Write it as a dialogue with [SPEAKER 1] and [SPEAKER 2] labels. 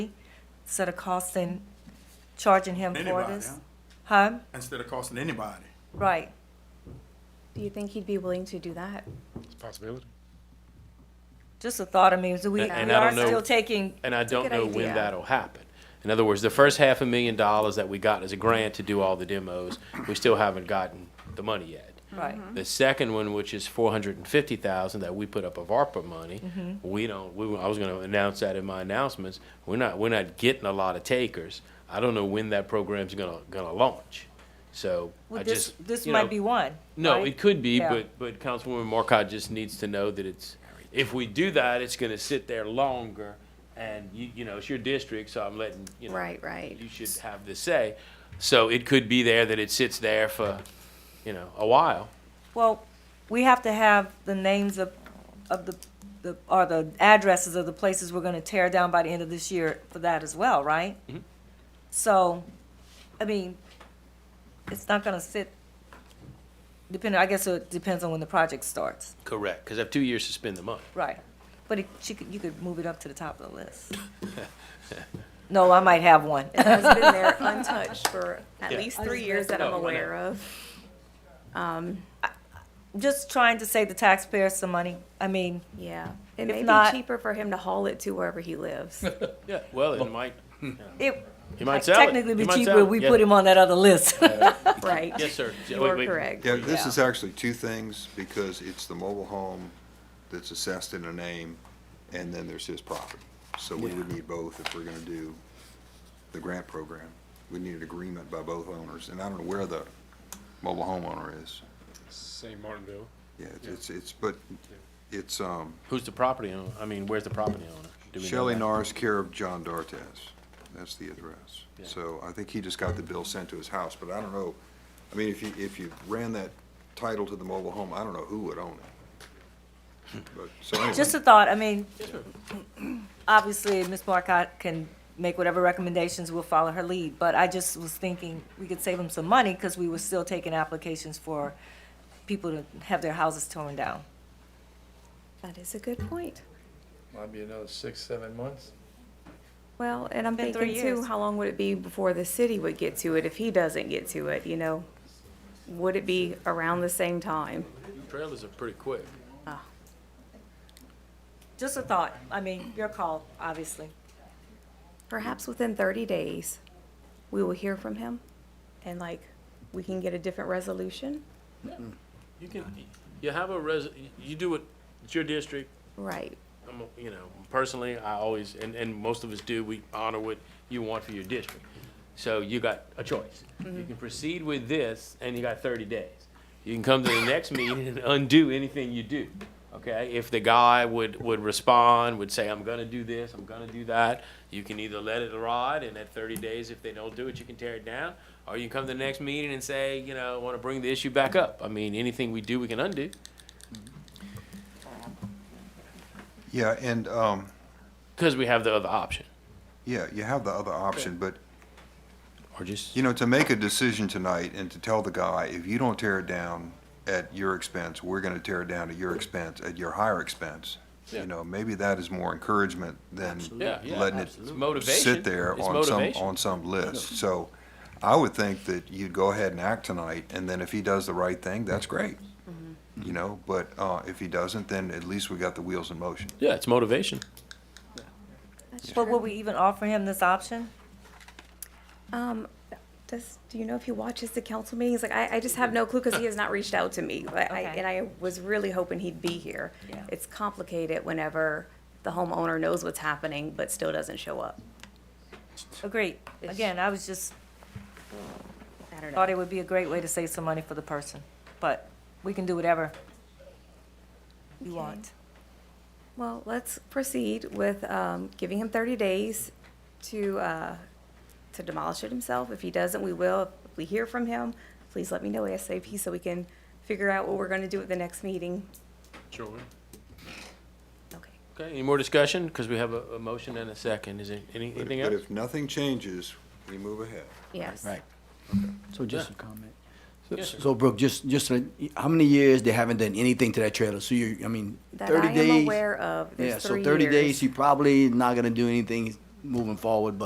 [SPEAKER 1] instead of costing, charging him for
[SPEAKER 2] Anybody,
[SPEAKER 1] this?
[SPEAKER 2] huh?
[SPEAKER 1] Huh?
[SPEAKER 2] Instead of costing anybody.
[SPEAKER 1] Right.
[SPEAKER 3] Do you think he'd be willing to do that?
[SPEAKER 4] It's a possibility.
[SPEAKER 1] Just a thought, I mean, so we, we
[SPEAKER 4] And- and I
[SPEAKER 1] are
[SPEAKER 4] don't know-
[SPEAKER 1] still taking,
[SPEAKER 4] And I don't
[SPEAKER 3] good
[SPEAKER 4] know when
[SPEAKER 3] idea.
[SPEAKER 4] that'll happen. In other words, the first half a million dollars that we got as a grant to do all the demos, we still haven't gotten the money yet.
[SPEAKER 1] right,
[SPEAKER 4] The second one, which is four hundred and fifty thousand that we put up of ARPA money,
[SPEAKER 1] Mm-hmm.
[SPEAKER 4] we don't, we, I was gonna announce that in my announcements. We're not, we're not getting a lot of takers. I don't know when that program's gonna, gonna launch. So I
[SPEAKER 1] well, this,
[SPEAKER 4] just,
[SPEAKER 1] this
[SPEAKER 4] you know,
[SPEAKER 1] might be one.
[SPEAKER 4] No,
[SPEAKER 1] right?
[SPEAKER 4] it could be,
[SPEAKER 1] Yeah.
[SPEAKER 4] but, but Councilwoman Marcotte just needs to know that it's, if we do that, it's gonna sit there longer. And you, you know, it's your district, so I'm letting, you know.
[SPEAKER 3] Right, right.
[SPEAKER 4] You should have the say. So it could be there that it sits there for, you know, a while.
[SPEAKER 1] Well, we have to have the names of, of the, the, or the addresses of the places we're gonna tear down by the end of this year for that as well, right?
[SPEAKER 4] Mm-hmm.
[SPEAKER 1] So, I mean, it's not gonna sit, depending, I guess it depends on when the project starts,
[SPEAKER 4] Correct, because I have two years to spend the money.
[SPEAKER 1] right? But it, she could, you could move it up to the top of the list. No, I might have one.
[SPEAKER 3] It has been there untouched for at
[SPEAKER 4] Yeah.
[SPEAKER 3] least three years that I'm
[SPEAKER 4] No, why not?
[SPEAKER 3] aware of.
[SPEAKER 1] Just trying to save the taxpayers some money. I mean,
[SPEAKER 3] Yeah. It
[SPEAKER 1] If
[SPEAKER 3] may
[SPEAKER 1] not-
[SPEAKER 3] be cheaper for him to haul it to wherever he lives.
[SPEAKER 4] Yeah, well, it might,
[SPEAKER 1] it
[SPEAKER 4] it might sell it.
[SPEAKER 1] technically
[SPEAKER 4] It
[SPEAKER 1] be
[SPEAKER 4] might
[SPEAKER 1] cheaper
[SPEAKER 4] sell
[SPEAKER 1] if
[SPEAKER 4] it.
[SPEAKER 1] we
[SPEAKER 4] Yeah.
[SPEAKER 1] put him on that other list.
[SPEAKER 3] Right.
[SPEAKER 4] Yes, sir. Yeah,
[SPEAKER 3] You
[SPEAKER 4] wait,
[SPEAKER 3] are
[SPEAKER 4] wait.
[SPEAKER 3] correct.
[SPEAKER 5] Yeah, this
[SPEAKER 1] Yeah.
[SPEAKER 5] is actually two things, because it's the mobile home that's assessed in a name, and then there's his property. So we would need both if we're gonna do the grant program. We need an agreement by both owners, and I don't know where the mobile homeowner is.
[SPEAKER 4] St. Martinville.
[SPEAKER 5] Yeah, it's- it's, it's, but it's, um,
[SPEAKER 4] Who's the property owner? I mean, where's the property owner? Do we know
[SPEAKER 5] Shelley
[SPEAKER 4] that?
[SPEAKER 5] Norris, care of John Dartes. That's the address.
[SPEAKER 4] Yeah.
[SPEAKER 5] So I think he just got the bill sent to his house, but I don't know, I mean, if you, if you ran that title to the mobile home, I don't know who would own it. But, so anyway.
[SPEAKER 1] Just a thought, I mean, obviously, Ms. Marcotte can make whatever recommendations, we'll follow her lead, but I just was thinking we could save them some money, because we were still taking applications for people to have their houses torn down.
[SPEAKER 3] That is a good point.
[SPEAKER 6] Might be another six, seven months.
[SPEAKER 3] Well, and I'm
[SPEAKER 1] Been three
[SPEAKER 3] thinking too,
[SPEAKER 1] years.
[SPEAKER 3] how long would it be before the city would get to it if he doesn't get to it, you know? Would it be around the same time?
[SPEAKER 4] Trailers are pretty quick.
[SPEAKER 1] Just a thought, I mean, your call, obviously,
[SPEAKER 3] Perhaps within thirty days, we will hear from him and like, we can get a different resolution?
[SPEAKER 4] You can, you have a res, you do it, it's your district,
[SPEAKER 3] Right.
[SPEAKER 4] I'm, a- you know, personally, I always, and, and most of us do, we honor what you want for your district. So you got a choice. You can proceed with this, and you got thirty days. You can come to the next meeting and undo anything you do, okay? If the guy would, would respond, would say, I'm gonna do this, I'm gonna do that, you can either let it ride, and at thirty days, if they don't do it, you can tear it down. Or you come to the next meeting and say, you know, I wanna bring the issue back up. I mean, anything we do, we can undo.
[SPEAKER 5] Yeah, and, um,
[SPEAKER 4] Because we have the other option,
[SPEAKER 5] yeah, you have the other option, but,
[SPEAKER 4] or just,
[SPEAKER 5] you know, to make a decision tonight and to tell the guy, if you don't tear it down at your expense, we're gonna tear it down at your expense, at your higher expense.
[SPEAKER 4] Yeah.
[SPEAKER 5] You know, maybe that is more encouragement than
[SPEAKER 4] yeah, yeah.
[SPEAKER 5] letting it
[SPEAKER 4] It's motivation.
[SPEAKER 5] sit there
[SPEAKER 4] It's
[SPEAKER 5] on some,
[SPEAKER 4] motivation.
[SPEAKER 5] on some list. So I would think that you'd go ahead and act tonight, and then if he does the right thing, that's great. You know, but, uh, if he doesn't, then at least we got the wheels in motion.
[SPEAKER 4] Yeah, it's motivation.
[SPEAKER 1] but would we even offer him this option?
[SPEAKER 3] Um, does, do you know if he watches the council meetings? Like, I, I just have no clue because he has not reached out to me. But I,
[SPEAKER 1] Okay.
[SPEAKER 3] and I was really hoping he'd be here.
[SPEAKER 1] Yeah.
[SPEAKER 3] It's complicated whenever the homeowner knows what's happening but still doesn't show up.
[SPEAKER 1] Agreed, Oh, again, I was just,
[SPEAKER 3] I don't
[SPEAKER 1] thought
[SPEAKER 3] know.
[SPEAKER 1] it would be a great way to save some money for the person, but we can do whatever you want.
[SPEAKER 3] Well, let's proceed with, um, giving him thirty days to, uh, to demolish it himself. If he doesn't, we will. If we hear from him, please let me know ASAP so we can figure out what we're gonna do at the next meeting.
[SPEAKER 4] Sure.
[SPEAKER 3] Okay.
[SPEAKER 4] Okay, any more discussion? Because we have a, a motion and a second. Is there any-
[SPEAKER 5] But
[SPEAKER 4] anything
[SPEAKER 5] but
[SPEAKER 4] else?
[SPEAKER 5] if nothing changes, we move ahead.
[SPEAKER 3] Yes.
[SPEAKER 7] Right. So just
[SPEAKER 4] Yeah.
[SPEAKER 7] a comment. So-
[SPEAKER 4] Yes, sir.
[SPEAKER 7] So Brooke, just, just, uh, how many years they haven't done anything to that trailer? So you, I mean,
[SPEAKER 3] That I
[SPEAKER 7] thirty days?
[SPEAKER 3] am aware of. There's
[SPEAKER 7] Yeah, so
[SPEAKER 3] three
[SPEAKER 7] thirty
[SPEAKER 3] years.
[SPEAKER 7] days, he probably not gonna do anything moving forward, but